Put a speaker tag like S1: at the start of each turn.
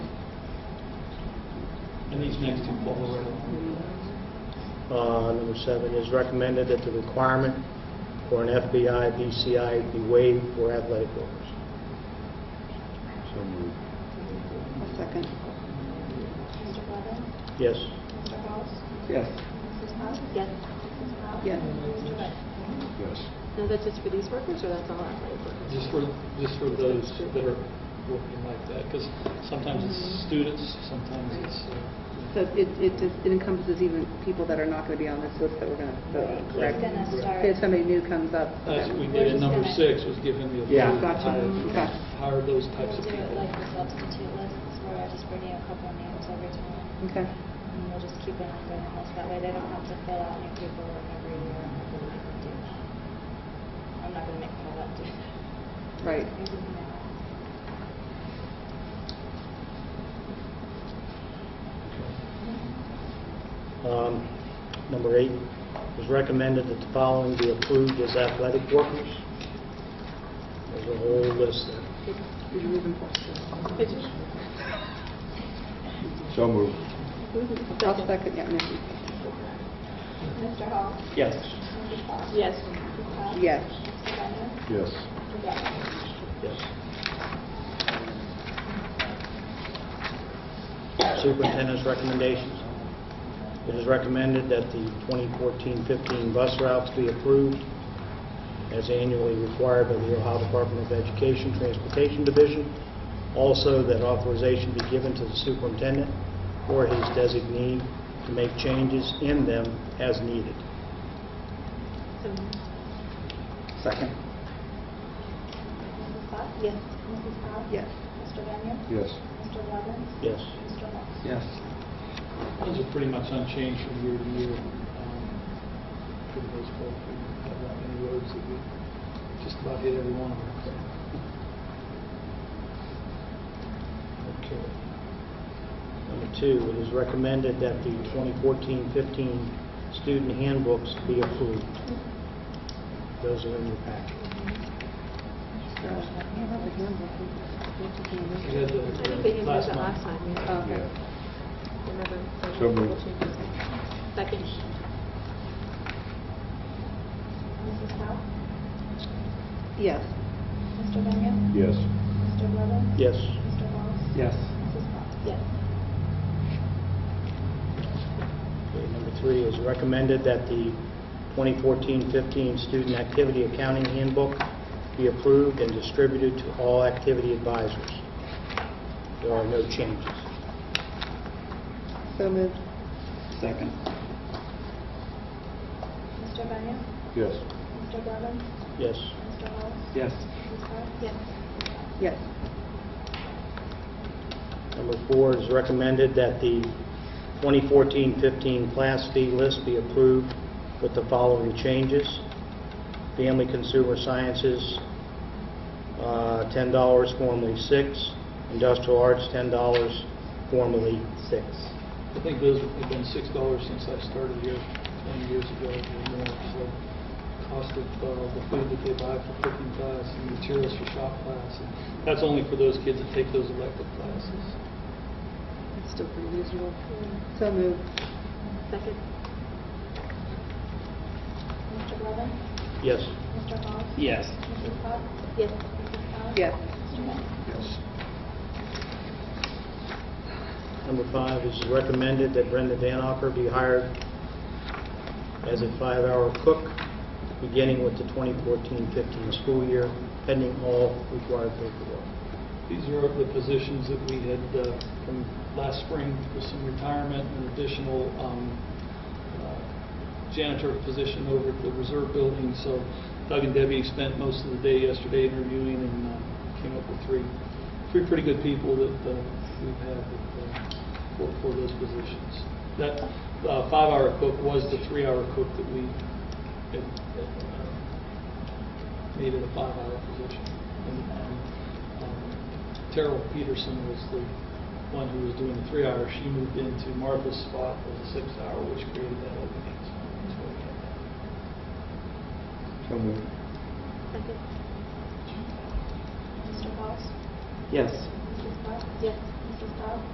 S1: And these next two follow.
S2: Uh, Number seven, is recommended that the requirement for an FBI, BCI be waived for athletic workers.
S3: So moved.
S4: A second.
S5: Mr. Blevins?
S2: Yes.
S5: Mr. Halls?
S1: Yes.
S5: Mrs. Potts?
S6: Yes.
S5: Mrs. Powell?
S4: Yes.
S5: Mr. Wright?
S3: Yes.
S6: Now, that's just for these workers, or that's all athletic workers?
S1: Just for, just for those that are working like that, because sometimes it's students, sometimes it's, uh,
S4: So it, it just it encompasses even people that are not going to be on this list that we're going to vote on,
S5: We're
S4: correct?
S5: gonna start.
S4: If somebody new comes up.
S1: that's what Uh, we did
S5: We're
S1: in
S5: just
S1: number
S5: gonna-
S1: six, was giving the
S2: Yeah.
S1: authority to
S4: Gotcha.
S1: hire,
S4: Okay.
S1: hire those types of
S5: We'll do it
S1: people.
S5: like the substitute lists where I just bring you a couple names every time.
S4: Okay.
S5: And we'll just keep an ongoing list. That way they don't have to fill out new paperwork every year. I'm not gonna make them do that. I'm not gonna make Paula do that.
S4: Right.
S5: I do now.
S2: Um, Number eight, is recommended that the following be approved as athletic workers. There's a whole list there.
S4: Did you move in?
S3: So moved.
S4: I'll second, yeah, Nikki.
S5: Mr. Hall?
S2: Yes.
S5: Mrs. Potts?
S6: Yes.
S5: Mrs. Powell?
S4: Yes.
S5: Mr. Blevins?
S3: Yes.
S5: Mr. Blevins?
S2: Yes. Superintendent's recommendations. It is recommended that the 2014-15 bus routes be approved as annually required by the Ohio Department of Education Transportation Division. Also, that authorization be given to the superintendent or his designee to make changes in them as needed.
S6: So,
S2: Second.
S5: Mrs. Potts?
S6: Yes.
S5: Mrs. Powell?
S4: Yes.
S5: Mr. Daniel?
S3: Yes.
S5: Mr. Blevins?
S2: Yes.
S5: Mr. Hall?
S1: Yes. Those are pretty much unchanged from year to year, um, for the most part. We don't have that many roads that we just about hit every one of them. Okay.
S2: Number two, it is recommended that the 2014-15 student handbooks be approved. Those are in your packet.
S1: We had the-
S6: I think they used
S1: last
S6: that
S1: month.
S6: last time, yeah. Oh,
S4: Okay.
S6: Remember?
S3: So moved.
S6: Second.
S5: Mrs. Powell?
S4: Yes.
S5: Mr. Daniel?
S3: Yes.
S5: Mr. Blevins?
S2: Yes.
S5: Mr. Hall?
S1: Yes.
S5: Mrs. Potts?
S6: Yes.
S2: Okay, Number three, it is recommended that the 2014-15 student activity accounting handbook be approved and distributed to all activity advisors. There are no changes.
S4: So moved.
S1: Second.
S5: Mr. Daniel?
S3: Yes.
S5: Mr. Blevins?
S2: Yes.
S5: Mr. Hall?
S1: Yes.
S5: Mrs. Potts?
S6: Yes.
S4: Yes.
S2: Number four, it is recommended that the 2014-15 class fee list be approved with the following changes. Family Consumer Sciences, uh, $10, formerly 6. Industrial Arts, $10, formerly 6.
S1: I think those have been six dollars since I started here twenty years ago or more. So cost of uh, the food that they buy for cooking class and materials for shop class. And That's only for those kids that take those elective classes.
S4: It's still pretty reasonable. So moved.
S6: Second.
S5: Mr. Blevins?
S2: Yes.
S5: Mr. Hall?
S1: Yes.
S5: Mrs. Potts?
S6: Yes.
S5: Mrs. Powell?
S4: Yes.
S5: Mr. Daniel?
S3: Yes.
S2: Number five, it is recommended that Brenda Danoffer be hired as a five-hour cook, beginning with the 2014-15 school year, pending all required paperwork.
S1: These are the positions that we had uh, from last spring with some retirement and additional um, uh, janitor position over at the reserve building. So Doug and Debbie spent most of the day yesterday interviewing and uh, came up with three, three pretty good people that uh, we've had that, uh, for, for those positions. That uh, five-hour cook was the three-hour cook that we had, uh, made it a five-hour position. And, um, um, Terrell Peterson was the one who was doing the three hour. She moved into Martha's spot for the six hour, which created that opening. So that's why we had that.
S3: So moved.
S6: Second.
S5: Mr. Hall?
S1: Yes.
S5: Mrs. Potts?
S6: Yes.
S5: Mrs. Powell?